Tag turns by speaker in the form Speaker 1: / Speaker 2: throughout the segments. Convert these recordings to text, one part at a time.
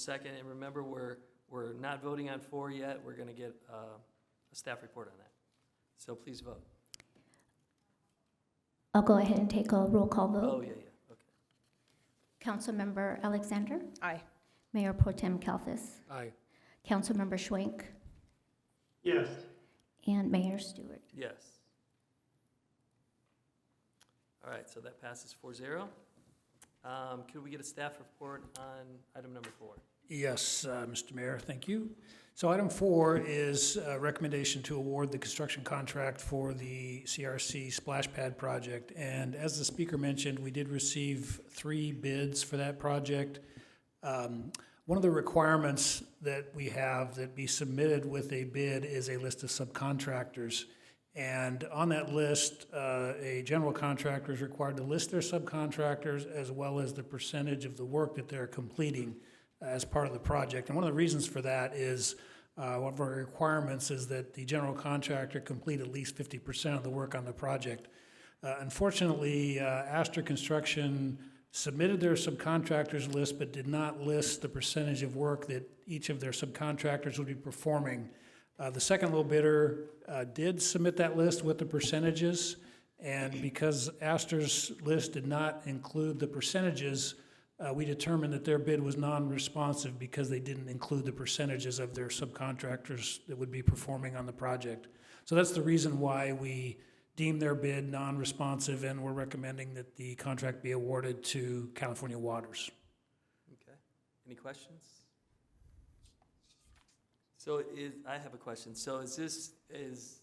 Speaker 1: second, and remember, we're, we're not voting on four yet, we're gonna get uh, a staff report on that. So please vote.
Speaker 2: I'll go ahead and take a roll call
Speaker 1: Oh,
Speaker 2: vote.
Speaker 1: yeah, yeah, okay.
Speaker 2: Councilmember Alexander,
Speaker 3: Aye.
Speaker 2: Mayor Pro Tem Kalfis,
Speaker 4: Aye.
Speaker 2: Councilmember Schwenk,
Speaker 5: Yes,
Speaker 2: and Mayor Stewart.
Speaker 1: Yes. All right, so that passes four zero. Um, Could we get a staff report on item number four?
Speaker 4: Yes, uh, Mr. Mayor, thank you. So item four is uh, recommendation to award the construction contract for the CRC splash pad project. And as the speaker mentioned, we did receive three bids for that project. Um, One of the requirements that we have that be submitted with a bid is a list of subcontractors. And on that list, uh, a general contractor is required to list their subcontractors as well as the percentage of the work that they're completing as part of the project. And one of the reasons for that is uh, one of our requirements is that the general contractor complete at least 50% of the work on the project. Uh, Unfortunately, uh, Astor Construction submitted their subcontractors list but did not list the percentage of work that each of their subcontractors would be performing. Uh, The second low bidder uh, did submit that list with the percentages, and because Astor's list did not include the percentages, uh, we determined that their bid was non-responsive because they didn't include the percentages of their subcontractors that would be performing on the project. So that's the reason why we deem their bid non-responsive, and we're recommending that the contract be awarded to California Waters.
Speaker 1: Okay, any questions? So is, I have a question. So is this, is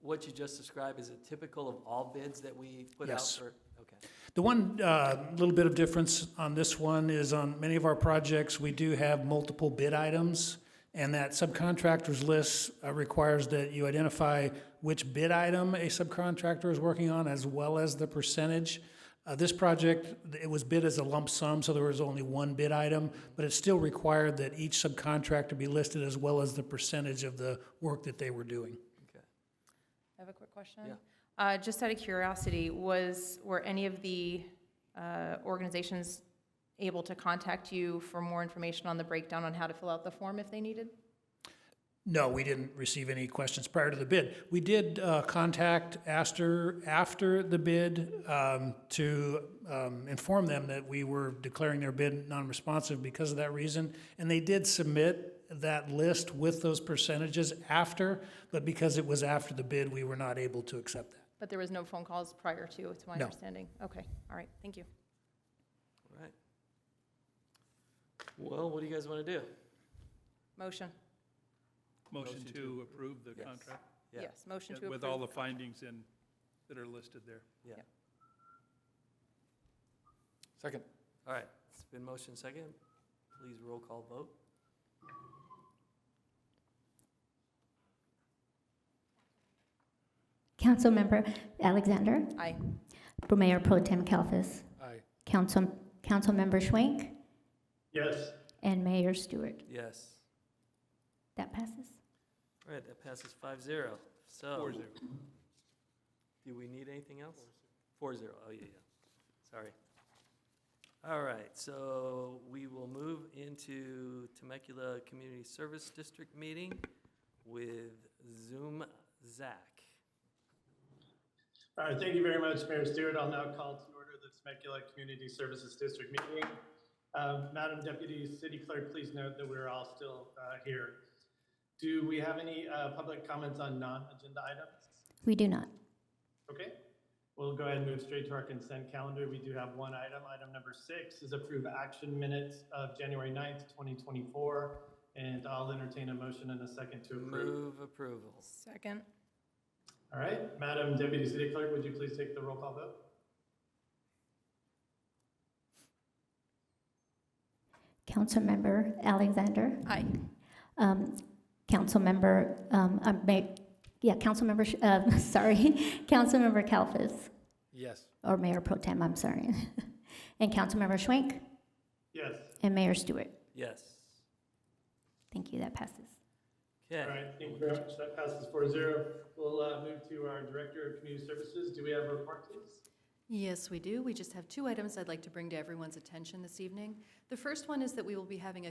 Speaker 1: what you just described, is it typical of all bids that we put out
Speaker 4: Yes.
Speaker 1: for? Okay.
Speaker 4: The one uh, little bit of difference on this one is on many of our projects, we do have multiple bid items, and that subcontractors list uh, requires that you identify which bid item a subcontractor is working on as well as the percentage. Uh, This project, it was bid as a lump sum, so there was only one bid item, but it still required that each subcontractor be listed as well as the percentage of the work that they were doing.
Speaker 1: Okay.
Speaker 3: I have a quick question.
Speaker 1: Yeah.
Speaker 3: Uh, just out of curiosity, was, were any of the, uh, organizations able to contact you for more information on the breakdown on how to fill out the form if they needed?
Speaker 4: No, we didn't receive any questions prior to the bid. We did uh, contact Astor after the bid um, to um, inform them that we were declaring their bid non-responsive because of that reason. And they did submit that list with those percentages after, but because it was after the bid, we were not able to accept that.
Speaker 3: But there was no phone calls prior to, it's my
Speaker 4: No.
Speaker 3: understanding. Okay, all right, thank you.
Speaker 1: All right. Well, what do you guys want to do?
Speaker 3: Motion,
Speaker 1: Motion
Speaker 6: Motion
Speaker 1: to
Speaker 6: to approve the
Speaker 1: Yes.
Speaker 6: contract
Speaker 1: Yeah.
Speaker 3: yes, motion to
Speaker 6: yeah, with all
Speaker 3: approve.
Speaker 6: the findings in, that are listed there.
Speaker 1: Yeah.
Speaker 3: Yep.
Speaker 7: Second.
Speaker 1: All right, it's been motion second. Please roll call vote.
Speaker 2: Councilmember Alexander,
Speaker 3: Aye,
Speaker 2: Mayor Pro Tem Kalfis,
Speaker 7: Aye.
Speaker 2: Council, Councilmember Schwenk,
Speaker 5: yes,
Speaker 2: and Mayor Stewart.
Speaker 1: Yes.
Speaker 2: That passes.
Speaker 1: All right, that passes five zero. So,
Speaker 6: Four zero.
Speaker 1: do we need anything else? Four zero. Oh yeah, yeah. Sorry. All right, so we will move into Temecula Community Service District meeting with Zoom Zach.
Speaker 5: all right, thank you very much, Mayor Stewart. I'll now call to order the Temecula Community Services District meeting. Uh, Madam Deputy City Clerk, please note that we're all still uh, here. Do we have any uh, public comments on non-agenda items?
Speaker 2: We do not.
Speaker 5: Okay, we'll go ahead and move straight to our consent calendar. We do have one item. Item number six is approve action minutes of January 9th, 2024, and I'll entertain a motion in a second to approve.
Speaker 1: Move approval.
Speaker 3: second,
Speaker 5: All right, Madam Deputy City Clerk, would you please take the roll call vote?
Speaker 2: Councilmember Alexander,
Speaker 3: aye,
Speaker 2: um, Councilmember, um, uh, Ma- yeah, Councilmember, Sh- uh, sorry, Councilmember Kalfis,
Speaker 7: Yes.
Speaker 2: or Mayor Pro Tem, I'm sorry, and Councilmember Schwenk,
Speaker 5: Yes,
Speaker 2: and Mayor Stewart.
Speaker 1: Yes.
Speaker 2: Thank you, that passes.
Speaker 1: Okay.
Speaker 5: all right, thank you very much. That passes 4-0. zero. We'll uh, move to our Director of Community Services. Do we have a report, please?
Speaker 8: Yes, we do. We just have two items I'd like to bring to everyone's attention this evening. The first one is that we will be having a